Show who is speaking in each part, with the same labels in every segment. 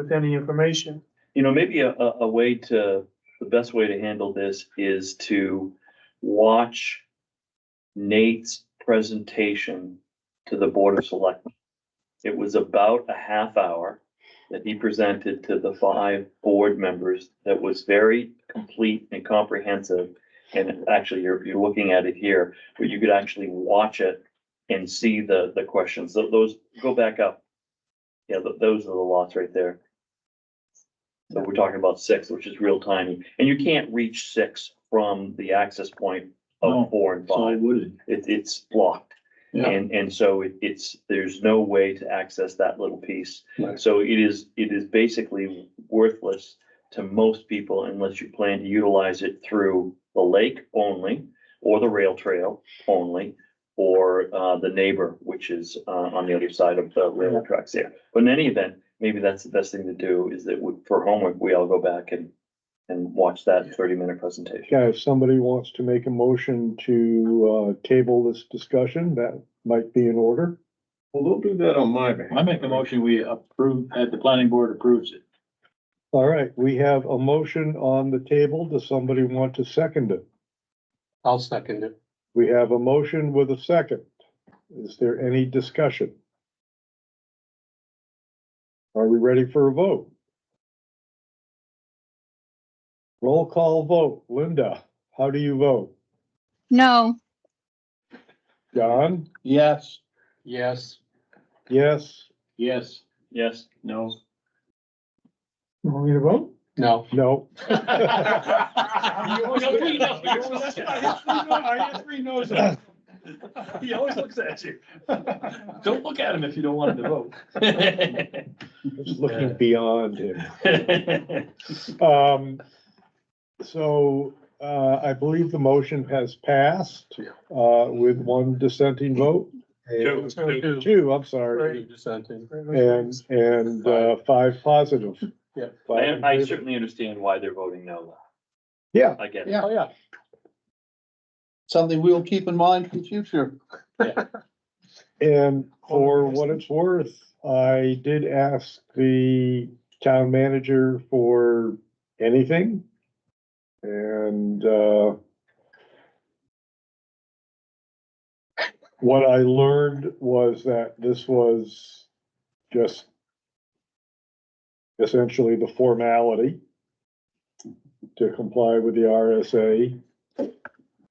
Speaker 1: with any information.
Speaker 2: You know, maybe a, a, a way to, the best way to handle this is to watch Nate's presentation to the Board of Selectmen. It was about a half hour that he presented to the five board members that was very complete and comprehensive. And actually, you're, you're looking at it here, but you could actually watch it and see the, the questions. Tho- Those, go back up. Yeah, tho- those are the lots right there. So we're talking about six, which is real tiny, and you can't reach six from the access point
Speaker 3: No,
Speaker 2: of four and
Speaker 3: So I
Speaker 2: five.
Speaker 3: would,
Speaker 2: It, it's blocked.
Speaker 3: Yeah.
Speaker 2: And, and so it, it's, there's no way to access that little piece.
Speaker 3: Right.
Speaker 2: So it is, it is basically worthless to most people unless you plan to utilize it through the lake only, or the rail trail only, or, uh, the neighbor, which is, uh, on the other side of the rail tracks there. But in any event, maybe that's the best thing to do is that we- for homework, we all go back and, and watch that thirty minute presentation.
Speaker 4: Yeah, if somebody wants to make a motion to uh table this discussion, that might be in order.
Speaker 5: Well, don't do that on my behalf.
Speaker 3: I make the motion, we approve, that the planning board approves it.
Speaker 4: All right, we have a motion on the table. Does somebody want to second it?
Speaker 6: I'll second it.
Speaker 4: We have a motion with a second. Is there any discussion? Are we ready for a vote? Roll call vote. Linda, how do you vote?
Speaker 7: No,
Speaker 4: John?
Speaker 3: Yes.
Speaker 6: Yes,
Speaker 4: Yes,
Speaker 3: Yes,
Speaker 2: Yes?
Speaker 3: no.
Speaker 1: You want me to vote?
Speaker 6: no.
Speaker 4: no,
Speaker 3: three no's. He always looks at you. Don't look at him if you don't want him to vote.
Speaker 4: just looking beyond him. Um, so, uh, I believe the motion has passed, uh, with one dissenting vote,
Speaker 5: Two, two.
Speaker 6: Two
Speaker 4: two, I'm sorry,
Speaker 6: dissenting.
Speaker 4: and, and, uh, five positive.
Speaker 6: Yeah.
Speaker 4: Five in
Speaker 2: I, I
Speaker 4: favor.
Speaker 2: certainly understand why they're voting no.
Speaker 4: Yeah,
Speaker 2: I get it.
Speaker 4: oh, yeah.
Speaker 3: Something we'll keep in mind for the future.
Speaker 4: And for what it's worth, I did ask the town manager for anything. And, uh, what I learned was that this was just essentially the formality to comply with the RSA.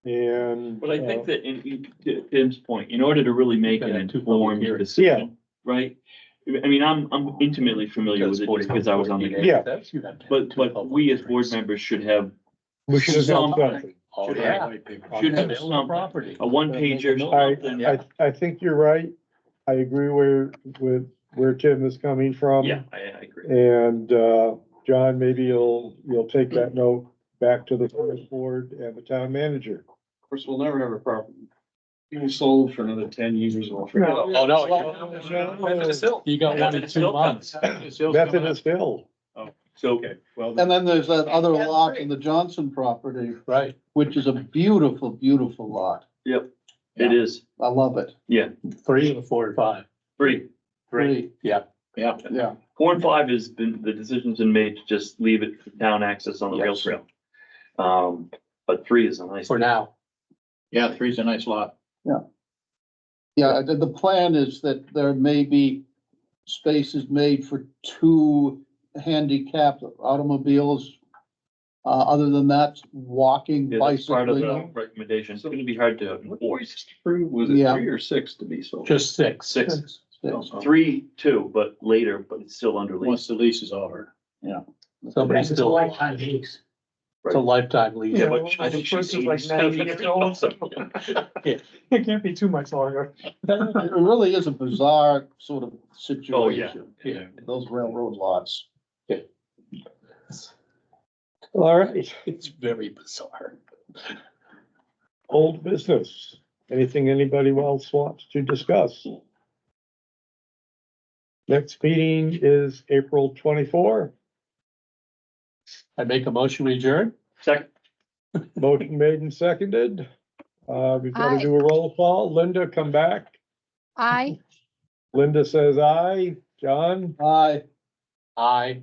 Speaker 4: And.
Speaker 2: But I think
Speaker 4: uh,
Speaker 2: that in, in- to Tim's point, in order to really make an
Speaker 6: Kind of two
Speaker 2: informed
Speaker 6: public hearings.
Speaker 2: decision, right? I mean, I'm, I'm intimately familiar with it just because I was on the,
Speaker 4: Yeah.
Speaker 2: but, but we as board members should have
Speaker 4: We should have done
Speaker 2: Some-
Speaker 4: something.
Speaker 6: Oh,
Speaker 2: Should
Speaker 6: yeah.
Speaker 2: have- should have some-
Speaker 6: property.
Speaker 2: a one pager.
Speaker 4: I- I, I think you're right. I agree where, with, where Tim is coming from.
Speaker 2: Yeah, I, I agree.
Speaker 4: And, uh, John, maybe you'll, you'll take that note back to the first board and the town manager.
Speaker 5: Of course, we'll never have a problem. Being sold for another ten years or forget.
Speaker 6: Oh, no. You got one in two months.
Speaker 4: Method is filled.
Speaker 2: So,
Speaker 5: Okay, well,
Speaker 8: And then there's that other lot in the Johnson property,
Speaker 6: Right.
Speaker 8: which is a beautiful, beautiful lot.
Speaker 2: it is,
Speaker 8: I love it.
Speaker 6: Three of the four and five.
Speaker 2: three,
Speaker 8: Great.
Speaker 6: Yeah.
Speaker 3: Yeah.
Speaker 8: Yeah,
Speaker 2: four and five has been, the decision's been made to just leave it for town access on the rail
Speaker 6: Yes.
Speaker 2: trail. Um, but three is a nice.
Speaker 6: For now.
Speaker 3: Yeah, three's a nice lot.
Speaker 8: yeah. The, the plan is that there may be spaces made for two handicapped automobiles. Uh, other than that, walking,
Speaker 2: Yeah, that's part of
Speaker 8: bicycling.
Speaker 2: the recommendation. It's gonna be hard to enforce.
Speaker 5: approved, was it
Speaker 8: Yeah.
Speaker 5: three or six to be sold? Oh,
Speaker 6: Just six.
Speaker 2: Six,
Speaker 8: Six.
Speaker 2: three, two, but later, but it's still under lease.
Speaker 3: Once the lease is over.
Speaker 6: Somebody's still. It's a lifetime lease.
Speaker 2: Yeah,
Speaker 1: Yeah,
Speaker 2: but
Speaker 1: well,
Speaker 2: I think
Speaker 1: the first
Speaker 2: she's
Speaker 1: is like
Speaker 2: 87
Speaker 1: 90 years
Speaker 2: years old,
Speaker 1: old.
Speaker 2: so-
Speaker 1: It can't be too much longer.
Speaker 8: It really is a bizarre sort of situation,
Speaker 6: Yeah.
Speaker 8: those railroad lots.
Speaker 4: All right,
Speaker 6: It's very bizarre.
Speaker 4: old business. Anything anybody else wants to discuss? Next meeting is April twenty-four.
Speaker 6: I make a motion we adjourn?
Speaker 2: Second,
Speaker 4: Motion made and seconded. Uh, we've got to
Speaker 7: Aye.
Speaker 4: do a roll call. Linda, come back.
Speaker 7: I.
Speaker 4: Linda says aye. John?
Speaker 8: Aye.
Speaker 6: Aye.